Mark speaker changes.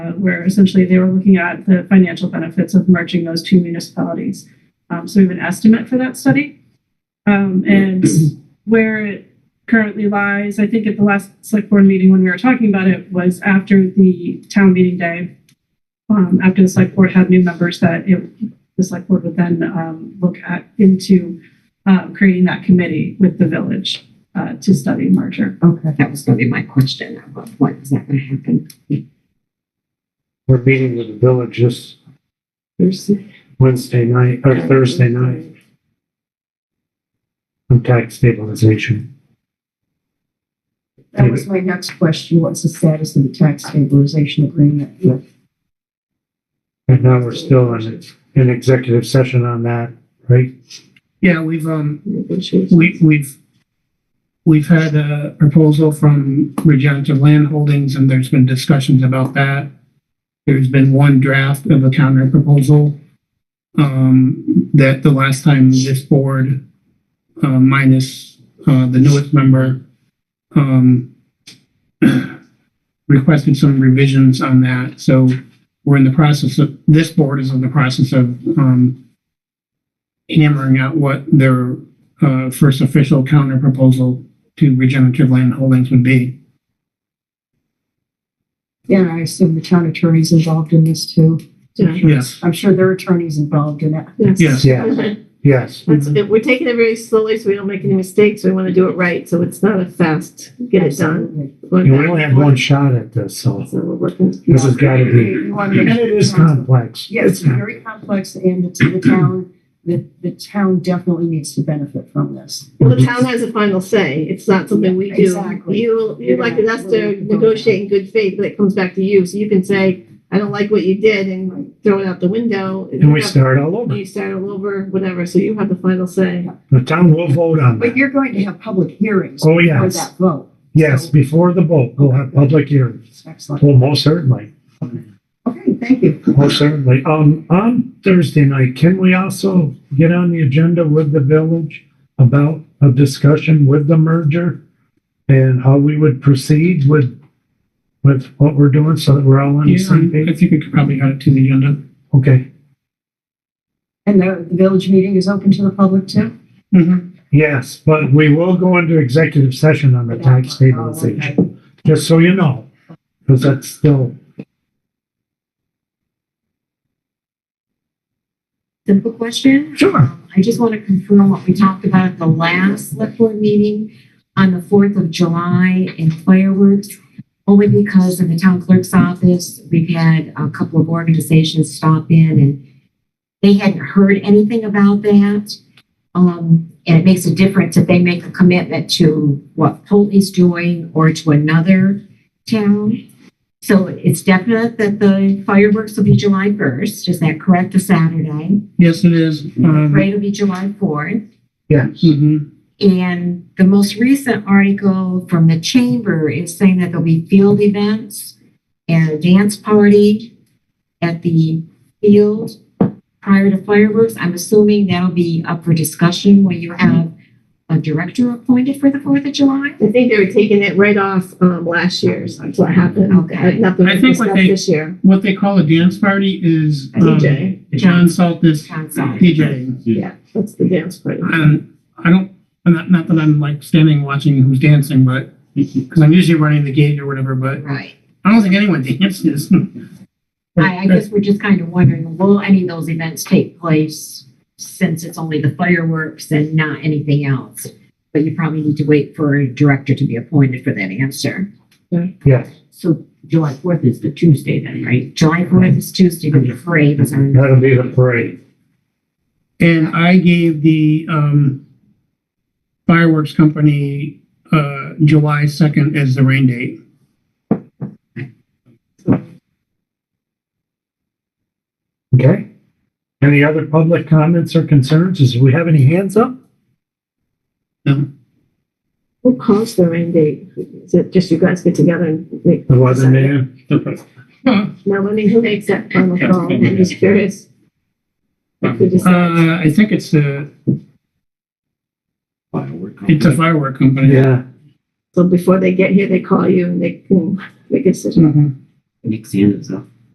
Speaker 1: uh, where essentially they were looking at the financial benefits of merging those two municipalities. Um, so we have an estimate for that study. Um, and where it currently lies, I think at the last select board meeting when we were talking about it was after the town meeting day. Um, after the select board had new members that it, the select board would then, um, look at into, uh, creating that committee with the village, uh, to study merger.
Speaker 2: Okay, that was gonna be my question, about when is that gonna happen?
Speaker 3: We're meeting with the village this
Speaker 2: Thursday?
Speaker 3: Wednesday night or Thursday night on tax stabilization.
Speaker 4: That was my next question. What's the status of the tax stabilization agreement?
Speaker 3: And now we're still in, in executive session on that, right?
Speaker 5: Yeah, we've, um,
Speaker 2: Negotiation.
Speaker 5: we, we've, we've had a proposal from Regenerative Land Holdings and there's been discussions about that. There's been one draft of a counter proposal. Um, that the last time this board, uh, minus, uh, the newest member, um, requested some revisions on that. So we're in the process of, this board is in the process of, um, hammering out what their uh, first official counter proposal to regenerative land holdings would be.
Speaker 4: Yeah, I assume the town attorney's involved in this too.
Speaker 5: Yes.
Speaker 4: I'm sure their attorney's involved in it.
Speaker 5: Yes.
Speaker 3: Yes, yes.
Speaker 6: That's it. We're taking it very slowly so we don't make any mistakes. We want to do it right, so it's not a fast get it done.
Speaker 4: Absolutely.
Speaker 3: You only have one shot at this, so
Speaker 6: So we're working.
Speaker 3: this has got to be,
Speaker 4: You wanna make
Speaker 3: and
Speaker 4: sure
Speaker 3: it is
Speaker 4: the council-
Speaker 3: complex.
Speaker 4: Yeah, it's very complex and it's the town, the, the town definitely needs to benefit from this.
Speaker 6: Well, the town has a final say. It's not something we do.
Speaker 4: Exactly.
Speaker 6: You, you elected us to negotiate in good faith, but it comes back to you. So you can say, I don't like what you did and throw it out the window.
Speaker 3: And we start all over.
Speaker 6: You start all over, whatever. So you have the final say.
Speaker 3: The town will vote on
Speaker 4: But
Speaker 3: that.
Speaker 4: you're going to have public hearings
Speaker 3: Oh,
Speaker 4: for
Speaker 3: yes.
Speaker 4: that vote.
Speaker 3: Yes, before the vote, we'll have public hearings.
Speaker 4: Excellent.
Speaker 3: Well, most certainly,
Speaker 4: Okay, thank you.
Speaker 3: most certainly. Um, on Thursday night, can we also get on the agenda with the village about a discussion with the merger? And how we would proceed with, with what we're doing so that we're all on the
Speaker 5: Yeah,
Speaker 3: same
Speaker 5: I
Speaker 3: page?
Speaker 5: think we could probably add it to the agenda.
Speaker 3: Okay,
Speaker 4: And the, the village meeting is open to the public too?
Speaker 3: yes, but we will go into executive session on the tax stabilization.
Speaker 4: Oh, okay.
Speaker 3: just so you know, because that's still,
Speaker 7: simple question.
Speaker 3: sure,
Speaker 7: Um, I just want to confirm what we talked about at the last select board meeting on the fourth of July and fireworks. Only because in the town clerk's office, we've had a couple of organizations stop in and they hadn't heard anything about that. Um, and it makes a difference if they make a commitment to what Pulteney's doing or to another town. So it's definite that the fireworks will be July first. Is that correct? A Saturday?
Speaker 5: Yes, it is. Um,
Speaker 7: Parade will be July fourth.
Speaker 3: yes.
Speaker 5: mhm.
Speaker 7: And the most recent article from the chamber is saying that there'll be field events and a dance party at the field prior to fireworks. I'm assuming that'll be up for discussion when you have a director appointed for the Fourth of July.
Speaker 6: I think they were taking it right off, um, last year's. That's what happened.
Speaker 7: Okay.
Speaker 6: Nothing
Speaker 5: I
Speaker 6: was
Speaker 5: think what
Speaker 6: discussed
Speaker 5: they-
Speaker 6: this year.
Speaker 5: What they call a dance party is, um,
Speaker 6: DJ.
Speaker 5: John Salt is DJing.
Speaker 6: Yeah, that's the dance party.
Speaker 5: And I don't, not, not that I'm like standing watching who's dancing, but, because I'm usually running the gate or whatever, but
Speaker 7: Right.
Speaker 5: I don't think anyone dances.
Speaker 7: I, I guess we're just kind of wondering, will any of those events take place since it's only the fireworks and not anything else? But you probably need to wait for a director to be appointed for that answer.
Speaker 3: Yes,
Speaker 8: So July fourth is the Tuesday then, right?
Speaker 7: July fourth is Tuesday, but the parade is on.
Speaker 3: that'll be the parade.
Speaker 5: And I gave the um, fireworks company uh, July 2nd as the rain date.
Speaker 3: Okay? Any other public comments or concerns? Does we have any hands up?
Speaker 6: Who calls the rain date? Is it just you guys get together and make?
Speaker 3: There wasn't any.
Speaker 6: Melanie, who makes that final call? I'm just curious. If we decide-
Speaker 5: Uh, I think it's a,
Speaker 8: Firework.
Speaker 5: it's a firework company.
Speaker 3: Yeah,
Speaker 6: So before they get here, they call you and they can make a decision.
Speaker 5: Mhm.
Speaker 8: Nick Sander's up.